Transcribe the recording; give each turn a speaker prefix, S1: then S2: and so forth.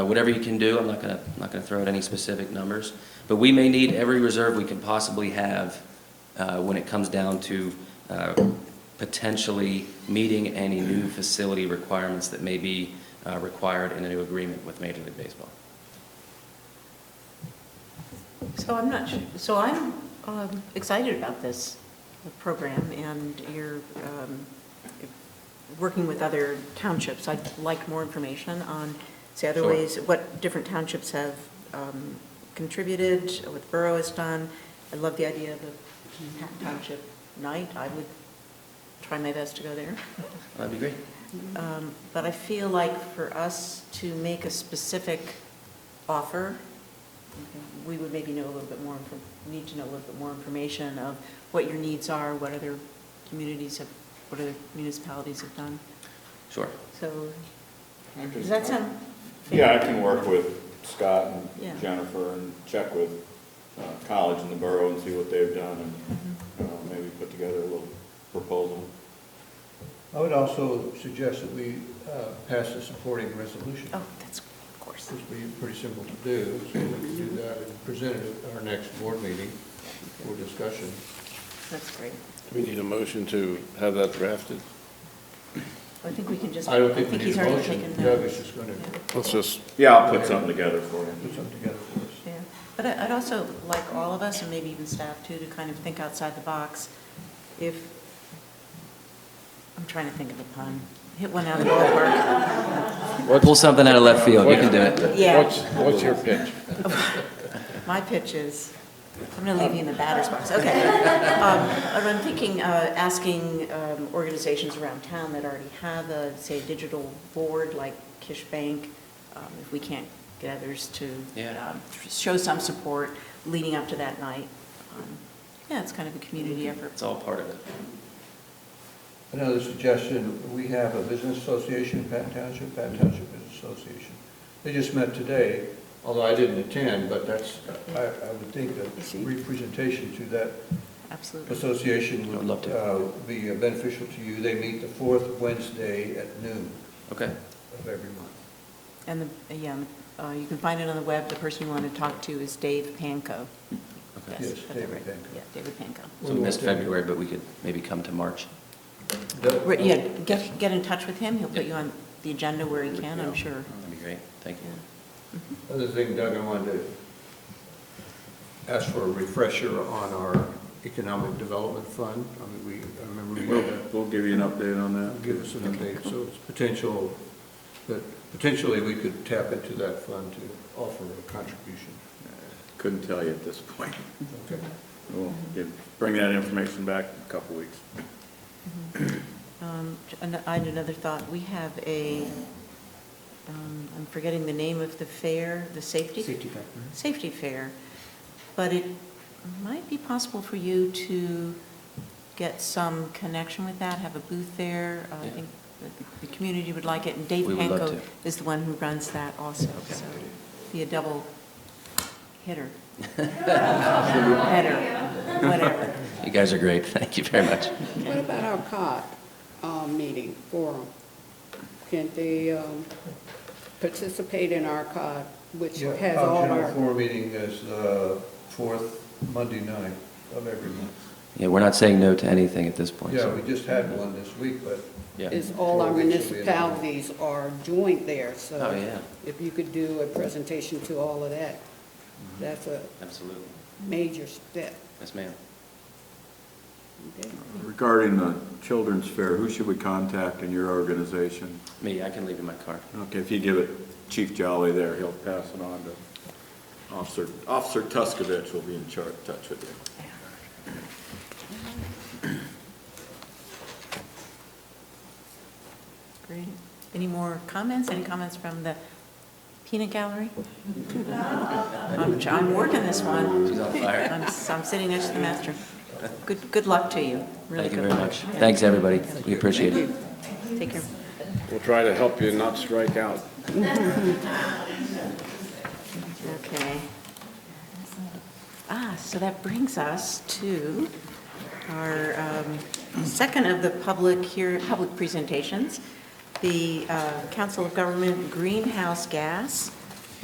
S1: Uh, Whatever you can do, I'm not gonna, I'm not gonna throw out any specific numbers, but we may need every reserve we can possibly have uh, when it comes down to uh, potentially meeting any new facility requirements that may be uh, required in a new agreement with Major League Baseball.
S2: So I'm not, su- so I'm um, excited about this program, and you're um, working with other townships. I'd like more information on, say, other
S1: Sure.
S2: ways, what different townships have um, contributed, what the borough has done. I love the idea of a Manhattan Township night. I would try my best to go there.
S1: That'd be great.
S2: Um, But I feel like for us to make a specific offer, we would maybe know a little bit more, infor- need to know a little bit more information of what your needs are, what other communities have, what other municipalities have done.
S1: Sure.
S2: So,
S3: I can-
S2: does that sound?
S3: Yeah, I can work with Scott
S2: Yeah.
S3: and Jennifer and check with uh, college and the borough and see what they've done and uh, maybe put together a little proposal.
S4: I would also suggest that we uh, pass a supporting resolution,
S2: Oh, that's, of course.
S4: which would be pretty simple to do, so we can do that and present it at our next board meeting for discussion.
S2: That's great.
S5: Do we need a motion to have that drafted?
S2: I think we can just.
S4: I don't think we need
S2: he's
S4: a
S2: already
S4: motion,
S2: taken that.
S4: Doug is just going to
S5: Let's just,
S3: Yeah, I'll put something together for
S4: put
S3: you.
S4: something together for us.
S2: Yeah, but I- I'd also like all of us, and maybe even staff too, to kind of think outside the box. If, I'm trying to think of a pun, hit one out of the ballpark.
S1: Pull something out of left field, you can do it.
S2: Yeah,
S5: what's, what's your pitch?
S2: my pitch is, I'm going to leave you in the batter's box, okay. Um, But I'm thinking, uh, asking um, organizations around town that already have a, say, digital board like Kish Bank, um, if we can't get others to
S1: Yeah.
S2: um, show some support leading up to that night. Um, Yeah, it's kind of a community effort.
S1: It's all part of it.
S4: Another suggestion, we have a business association, Patton Township, Patton Township Business Association. They just met today, although I didn't attend, but that's, I, I would think that representation to that
S2: Absolutely.
S4: association
S1: I'd love
S4: would
S1: to.
S4: uh, be beneficial to you. They meet the fourth Wednesday at noon
S1: Okay.
S4: of every month.
S2: And, the yeah, uh, you can find it on the web. The person you want to talk to is Dave Panko.
S1: Okay.
S4: Yes,
S2: that's
S4: David
S2: right.
S4: Panko.
S2: Yeah, David Panko.
S1: So we missed February, but we could maybe come to March.
S2: Right, Yeah, get, get in touch with him. He'll put
S1: Yeah.
S2: you on the agenda where he can, I'm sure.
S1: That'd be great. Thank you.
S4: Other thing, Doug, I wanted to ask for a refresher on our economic development fund. I mean, we, I remember we
S3: We'll,
S4: did that.
S3: we'll give you an update on that.
S4: give us an update, so it's potential, that potentially we could tap into that fund to offer a contribution.
S3: Couldn't tell you at this point.
S4: Okay.
S3: We'll give- bring that information back in a couple weeks.
S2: Um, an- I had another thought. We have a, um, I'm forgetting the name of the fair, the safety? Safety fair.
S1: mm-hmm.
S2: Safety fair. But it might be possible for you to get some connection with that, have a booth there. Uh, I
S1: Yeah.
S2: think the- the community would like it, and Dave
S1: We would love
S2: Panko is the one who runs that also, so be a double hitter. Header, whatever.
S1: You guys are great. Thank you very much.
S6: What about our COG um, meeting forum? Can they um, participate in our COG, which
S4: Yeah,
S6: has
S4: our
S6: all
S4: General
S6: our,
S4: floor meeting is the fourth Monday night of every month.
S1: Yeah, we're not saying no to anything at this point.
S4: Yeah,
S1: so-
S4: we just had one this week, but
S1: Yeah.
S6: is all our
S4: Forum, which will be available.
S6: municipalities are doing there, so.
S1: Oh, yeah.
S6: If you could do a presentation to all of that, that's a
S1: Absolutely.
S6: major step.
S1: Yes, ma'am.
S6: Okay.
S3: Regarding the children's fair, who should we contact in your organization?
S1: Me, I can leave you my card.
S3: Okay, if you give it Chief Jolly there, he'll pass it on to Officer, Officer Tuskovich will be in charge, touch with you.
S2: Great. Any more comments? Any comments from the peanut gallery? I'm I'm working this one.
S1: She's on fire.
S2: I'm s- I'm sitting next to the master. Good, good luck to you. Really
S1: Thank you
S2: good
S1: very
S2: luck.
S1: much. Thanks, everybody. We appreciate it.
S2: Take care.
S5: We'll try to help you not strike out.
S2: Okay. Ah, so that brings us to our um, second of the public here, public presentations, the uh, Council of Government Greenhouse Gas